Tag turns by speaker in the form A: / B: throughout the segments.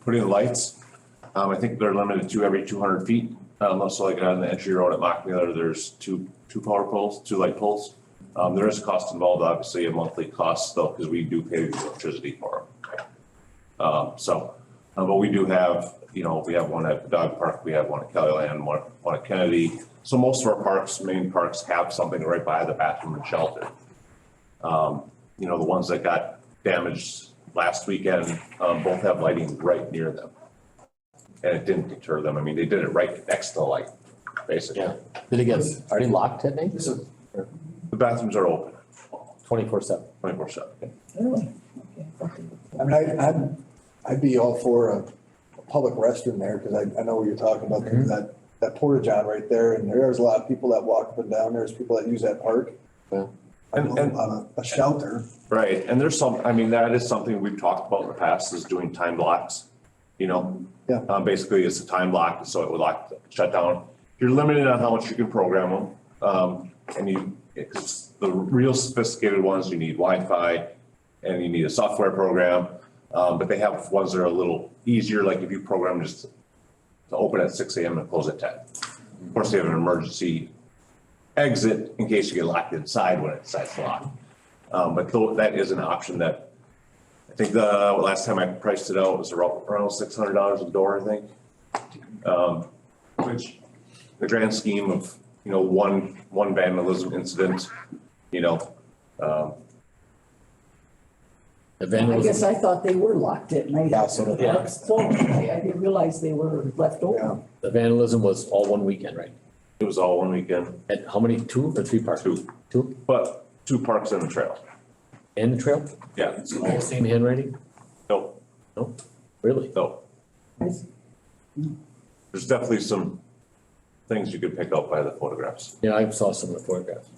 A: put in lights. Um, I think they're limited to every two hundred feet, um, also like on the entry road at Mock Miller, there's two, two power poles, two light poles. Um, there is a cost involved, obviously, a monthly cost though, because we do pay the electricity for them. Um, so, uh, but we do have, you know, we have one at the dog park, we have one at Kelly Land, one, one at Kennedy. So most of our parks, main parks have something right by the bathroom and shelter. Um, you know, the ones that got damaged last weekend, um, both have lighting right near them. And it didn't deter them. I mean, they did it right next to the light, basically.
B: Yeah. Did it get, are they locked at night?
A: The bathrooms are open
B: Twenty-four seven.
A: twenty-four seven.
C: I mean, I, I'd, I'd be all for a, a public restroom there, cause I, I know what you're talking about, there's that, that porta john right there, and there's a lot of people that walk up and down, there's people that use that park.
B: Yeah.
C: I know
A: And- and-
C: about A a shelter,
A: Right, and there's some, I mean, that is something we've talked about in the past, is doing time blocks, you know?
C: Yeah.
A: Uh, basically, it's a time block, so it would lock, shut down. You're limited on how much you can program them, um, and you, it's the real sophisticated ones, you need Wi-Fi, and you need a software program, um, but they have ones that are a little easier, like if you program just to open at six AM and close at ten. Of course, they have an emergency exit in case you get locked inside when it's it's locked. Um, but though, that is an option that, I think the, last time I priced it out was around, around six hundred dollars a door, I think. Um, which, the grand scheme of, you know, one, one vandalism incident, you know, um,
B: The
D: I guess
B: vandalism,
D: I thought they were locked at night.
E: Yeah, so did I.
D: Locked stone. I, I didn't realize they were left
C: Yeah.
D: open.
B: the vandalism was all one weekend, right?
A: it was all one weekend,
B: At how many, two or three parks?
A: Two.
B: Two,
A: but two parks and a trail,
B: and the trail,
A: yeah, so,
B: all the same handwriting?
A: no,
B: No, really?
A: no, there's definitely some things you could pick up by the photographs.
B: Yeah, I saw some of the photographs.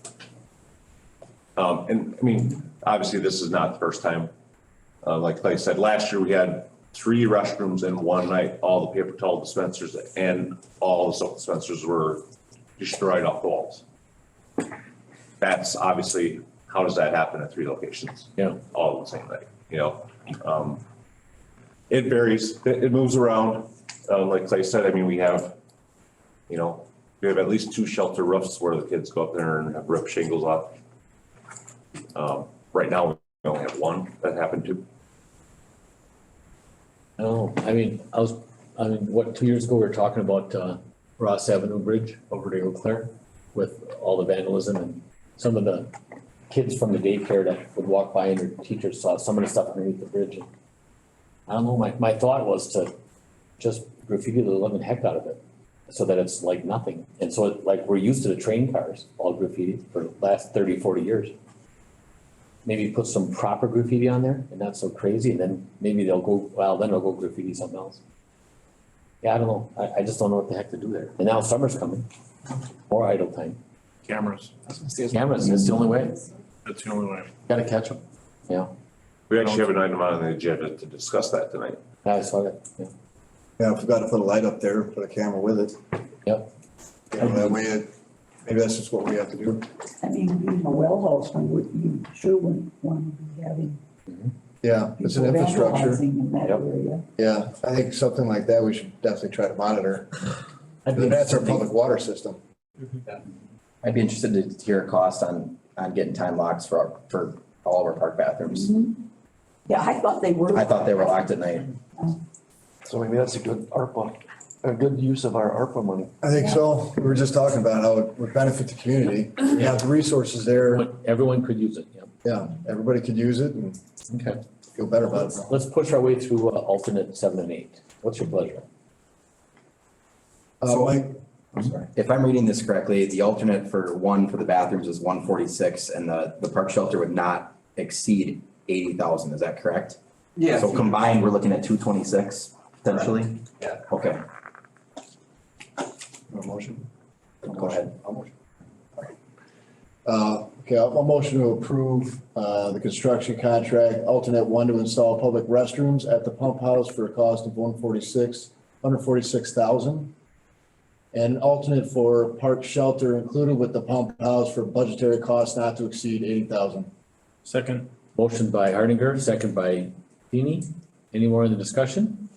A: Um, and I mean, obviously, this is not the first time. Uh, like Clay said, last year we had three restrooms in one night, all the paper towel dispensers and all the soap dispensers were destroyed off the walls. That's obviously, how does that happen at three locations?
B: Yeah.
A: All in the same night, you know? Um, it varies, it, it moves around. Uh, like Clay said, I mean, we have, you know, we have at least two shelter roofs where the kids go up there and have rip shingles off. Um, right now, we only have one that happened to,
B: I don't know, I mean, I was, I mean, what, two years ago, we were talking about, uh, Ross Avenue Bridge over to Eau Claire with all the vandalism and some of the kids from the daycare that would walk by and their teachers saw some of the stuff underneath the bridge. I don't know, my, my thought was to just graffiti the living heck out of it, so that it's like nothing. And so it- like, we're used to the train cars, all graffiti for the last 30, 40 years. Maybe put some proper graffiti on there and not so crazy, and then maybe they'll go, well, then they'll go graffiti something else. Yeah, I don't know, I, I just don't know what the heck to do there. And now summer's coming, more idle time.
F: cameras.
B: Cameras, that's the only way,
F: That's the only way.
B: gotta catch them, yeah,
A: we actually have an item on the agenda to discuss that tonight.
B: I saw that, yeah.
C: yeah, I forgot to put a light up there, put a camera with it.
B: Yep.
C: You know, that way, it- maybe that's just what we have to do.
D: I mean, even a well house, one would, you sure wouldn't want to be having.
C: Yeah, it's an
D: people vandalizing
C: infrastructure,
D: In that
B: Yep.
D: area.
C: yeah, I think something like that, we should definitely try to monitor,
B: I'd be
C: that's our
B: interested-
C: public water system.
E: I'd be interested to hear a cost on, on getting time locks for, our- for all of our park bathrooms.
D: Yeah, I thought they were.
E: I thought they were locked at night.
G: So maybe that's a good ARPA, a good use of our ARPA money.
C: I think so, we were just talking about how it would benefit the community, we have the resources there,
B: Everyone- Everyone could use it, yeah.
C: yeah, everybody could use it and
B: Okay.
C: feel better about it.
B: Let's, let's push our way through uh, alternate seven and eight. What's your pleasure?
C: Uh, Mike,
E: If I'm reading this correctly, the alternate for one for the bathrooms is one forty-six and the, the park shelter would not exceed eighty thousand, is that correct?
G: Yeah.
E: So combined, we're looking at two twenty-six potentially?
G: Yeah.
E: Okay,
C: a motion?
E: go ahead.
C: I'll motion. Uh, okay, I'll, I'll motion to approve, uh, the construction contract, alternate one to install public restrooms at the pump house for a cost of one forty-six, under forty-six thousand. And alternate for park shelter included with the pump house for budgetary costs not to exceed eighty thousand.
F: Second,
B: Motion by Hardinger, second by Feeny. Any more in the discussion?